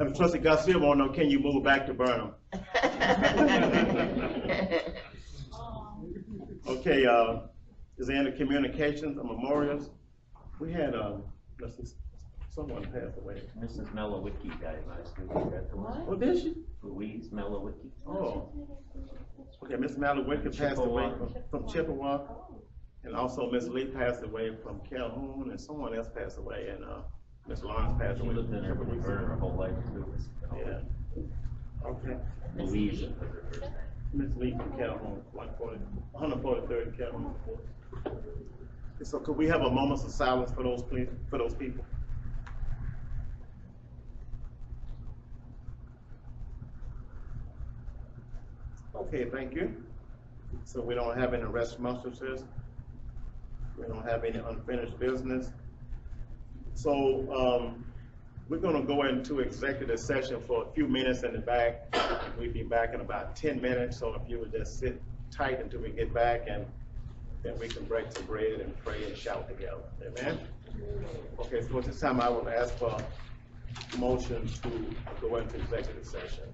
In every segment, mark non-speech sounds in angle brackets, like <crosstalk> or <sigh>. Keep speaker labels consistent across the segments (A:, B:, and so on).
A: And Trustee Garcia wanna know, can you move back to Burnham?
B: <laughs>
A: Okay, uh, is there any communications or memorials? We had, uh, let's see, someone passed away.
C: Mrs. Melowicki died last week, is that the one?
A: Oh, did she?
C: Louise Melowicki.
A: Oh. Okay, Miss Malawick passed away
C: Chippewa.
A: from- from Chippewa, and also Miss Lee passed away from Calhoun, and someone else passed away, and, uh, Miss Lawrence
C: She
A: passed away.
C: lived
A: from
C: in Urban
A: Chippewa.
C: her whole life too.
A: Yeah. Okay.
C: Louise is her first name.
A: Miss Lee from Calhoun, one forty, one hundred forty-third Calhoun. So could we have a moment of silence for those, please, for those people? Okay, thank you. So we don't have any rest remonstrances. We don't have any unfinished business. So, um, we're gonna go into executive session for a few minutes in the back. We'll be back in about ten minutes, so if you would just sit tight until we get back and then we can break some bread and pray and shout together, amen? Okay, so at this time, I will ask for a motion to go into executive session.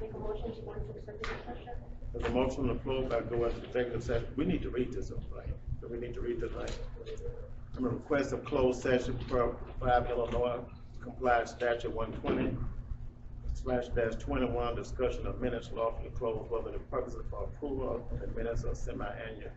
D: Make a motion to go into executive session?
A: There's a motion on the floor about go into executive session. We need to read this, right? So We need to read this, right? I'm gonna request a closed session per five Illinois compliance statute one twenty slash dash twenty-one, discussion of minutes lawfully closed, whether the purpose of approval of the minutes or semi-annual.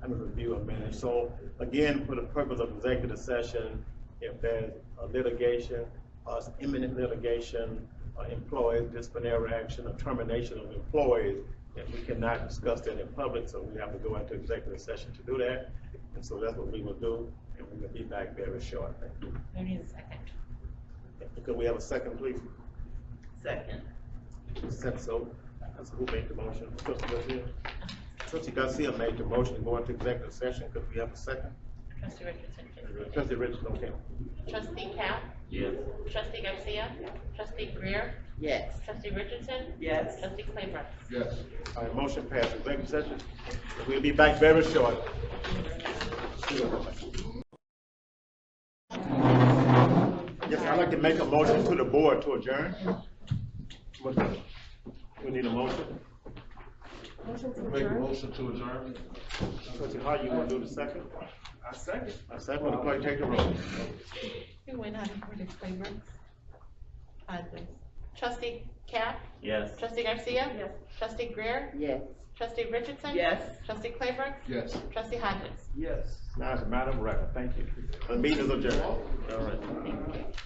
A: I'm gonna review a minute. So again, for the purpose of executive session, if there's a litigation, uh, imminent litigation, uh, employee disciplinary action or termination of employees, that we cannot discuss that in public, so we have to go into executive session to do that. And so that's what we will do, and we will be back very shortly.
B: We need a second.
A: Could we have a second, please?
B: Second.
A: Second, so, so who made the motion? Trustee Garcia? Trustee Garcia made the motion to go into executive session. Could we have a second?
B: Trustee Richardson.
A: Trustee Richardson, okay.
D: Trustee Cap?
C: Yes.
D: Trustee Garcia? Trustee Greer?
B: Yes.
D: Trustee Richardson?
B: Yes.
D: Trustee Claybrook?
E: Yes.
A: All right, motion passed. Executive session. We'll be back very shortly. Yes, I'd like to make a motion to the board to adjourn. What- We need a motion.
E: Make a motion to adjourn?
A: Trustee Hart, you want to do the second?
E: I second.
A: I second, will the clerk take the roll?
D: Who went out for the Claybrook? Trustee Cap?
C: Yes.
D: Trustee Garcia? Yes. Trustee Greer?
B: Yes.
D: Trustee Richardson?
B: Yes.
D: Trustee Claybrook?
E: Yes.
D: Trustee Hodges?
E: Yes.
A: Now it's a matter of record, thank you. The meeting is adjourned. All right.